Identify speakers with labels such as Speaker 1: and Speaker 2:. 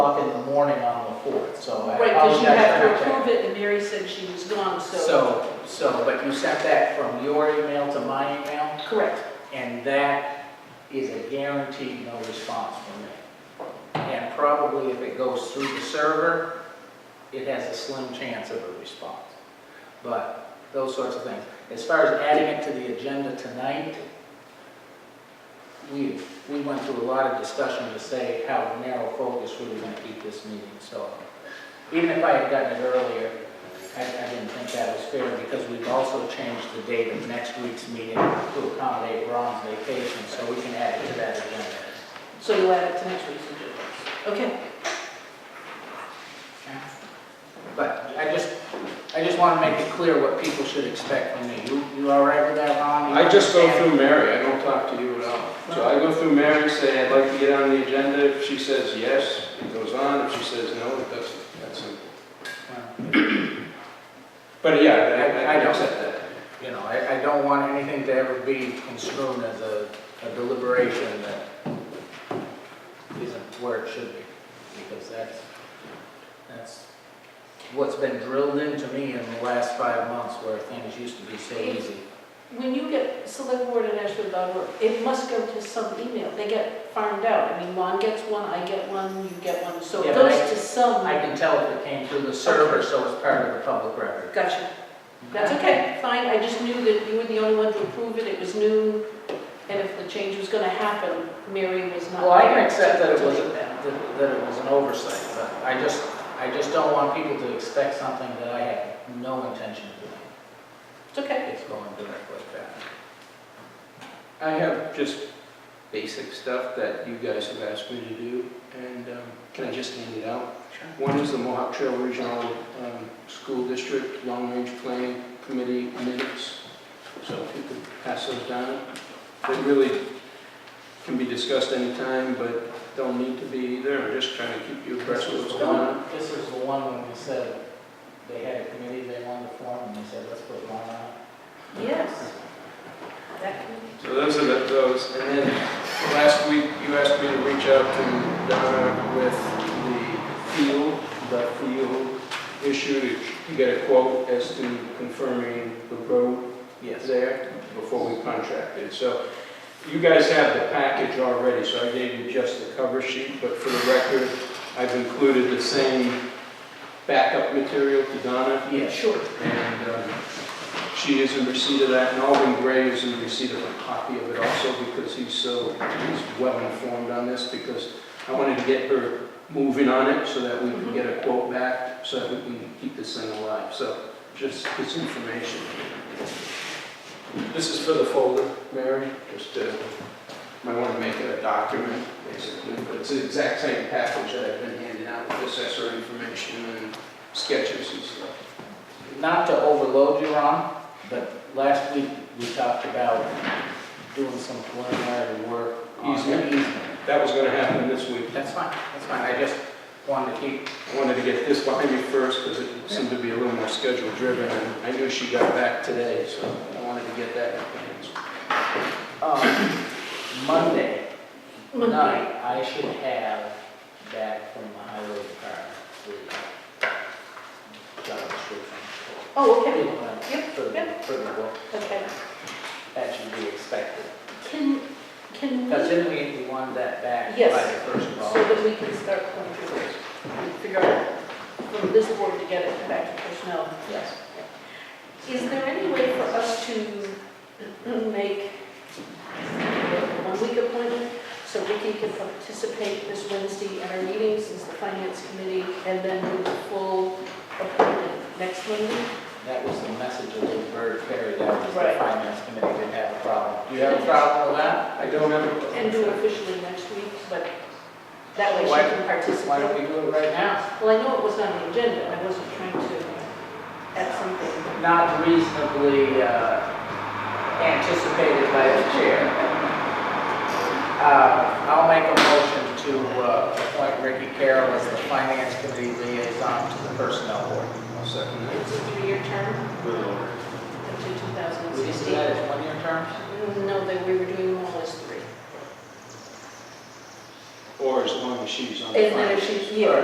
Speaker 1: so I
Speaker 2: Right, because you have to
Speaker 1: apologize for
Speaker 2: approve
Speaker 1: that.
Speaker 2: it, and Mary said she was gone, so.
Speaker 1: So, so, but you sent that from your email to my email,
Speaker 2: Correct.
Speaker 1: and that is a guaranteed no response from me. And probably if it goes through the server, it has a slim chance of a response. But those sorts of things. As far as adding it to the agenda tonight, we, we went through a lot of discussion to say how narrow focus we were gonna keep this meeting, so. Even if I had gotten it earlier, I, I didn't think that was fair because we've also changed the date of next week's meeting to accommodate Ron's vacation, so we can add it to that agenda.
Speaker 2: So you'll add it to next week's agenda. Okay,
Speaker 1: But I just, I just want to make it clear what people should expect from me. You, you all right with that, Ron? You
Speaker 3: I just go
Speaker 1: understand?
Speaker 3: through Mary, I don't talk to you at all. So I go through Mary, say, I'd like to get on the agenda, if she says yes, it goes on, if she says no, it doesn't, that's it. But yeah, I, I I accept that.
Speaker 1: You know, I, I don't want anything to ever be construed as a a deliberation that isn't where it should be, because that's, that's what's been drilled into me in the last five months where things used to be so easy.
Speaker 2: when you get selectboard@ashfield.org, it must go to some email. They get farmed out. I mean, Lon gets one, I get one, you get one, so it
Speaker 1: Yeah, but I-
Speaker 2: goes to some.
Speaker 1: I can tell if it came through the server, so it's part of the public record.
Speaker 2: Gotcha. That's okay, fine, I just knew that you were the only one to approve it, it was new, and if the change was gonna happen, Mary was not.
Speaker 1: Well, I can accept that it
Speaker 2: to
Speaker 1: was,
Speaker 2: make that.
Speaker 1: that that it was an oversight, but I just, I just don't want people to expect something that I had no intention of doing.
Speaker 2: It's okay.
Speaker 1: It's going directly back.
Speaker 3: I have just basic stuff that you guys have asked me to do, and um, can I just hand it out? One is the Mohawk Trail Regional um, School District Long Range Planning Committee minutes, so if you could pass those down. They really can be discussed anytime, but don't need to be either, I'm just trying to keep you abreast of what's going on.
Speaker 1: This is the one when we said they had a committee they wanted to form, and they said, let's put one on.
Speaker 2: Yes. That can-
Speaker 3: So those are the- those, and then last week, you asked me to reach out to Donna with the field, the field issue, to get a quote as to confirming the road there before we contracted. So you guys have the package already, so I gave you just the cover sheet, but for the record, I've included the same backup material to Donna.
Speaker 1: Yes.
Speaker 2: Sure.
Speaker 3: And um, she is in receipt of that, and Alvin Gray is in receipt of a copy of it also, because he's so, he's well informed on this, because I wanted to get her moving on it, so that we can get a quote back, so that we can keep this thing alive, so, just this information. This is for the folder, Mary, just, uh, might want to make it a document, basically, but it's the exact same package that I've been handing out, with assessor information and sketches and stuff.
Speaker 1: Not to overload you, Ron, but last week we talked about doing some preliminary work on the
Speaker 3: Easement?
Speaker 1: easement.
Speaker 3: That was gonna happen this week.
Speaker 1: That's fine, that's fine, I just wanted to keep,
Speaker 3: I wanted to get this behind me first, because it seemed to be a little more schedule driven, and I knew she got back today, so I wanted to get that in advance.
Speaker 1: um, Monday
Speaker 2: Monday.
Speaker 1: night, I should have back from the highway department the job description
Speaker 2: Oh,
Speaker 1: for,
Speaker 2: okay,
Speaker 1: for the, for the work.
Speaker 2: okay.
Speaker 1: That should be expected.
Speaker 2: Can, can
Speaker 1: Because
Speaker 2: we,
Speaker 1: then we, we want that back by
Speaker 2: Yes.
Speaker 1: the first of
Speaker 2: so
Speaker 1: all.
Speaker 2: that we can start going through this, and figure out from this board to get it back to personnel.
Speaker 1: Yes.
Speaker 2: Is there any way for us to make a one-week appointment so Ricky can participate this Wednesday at our meetings as the finance committee and then do the full appointment next Monday?
Speaker 1: That was the message of the bird ferry, that was the
Speaker 2: Right.
Speaker 1: finance committee didn't have a problem. Do you have a problem with that?
Speaker 3: I don't have,
Speaker 2: And do it officially next week, but that way she
Speaker 1: Why-
Speaker 2: can
Speaker 1: Why don't
Speaker 2: participate.
Speaker 1: we do it right now?
Speaker 2: Well, I know it was on the agenda, I wasn't trying to add something.
Speaker 1: Not reasonably uh, anticipated by the chair. Uh, I'll make a motion to uh, appoint Ricky Carroll as the finance committee liaison to the personnel board.
Speaker 3: I'll second that.
Speaker 2: It's a three-year term up to
Speaker 1: We just do that
Speaker 2: 2016.
Speaker 1: as one-year terms?
Speaker 2: No, that we were doing them all as three.
Speaker 3: Or as long as she's on the
Speaker 2: And then
Speaker 3: finance.
Speaker 2: if she, yeah,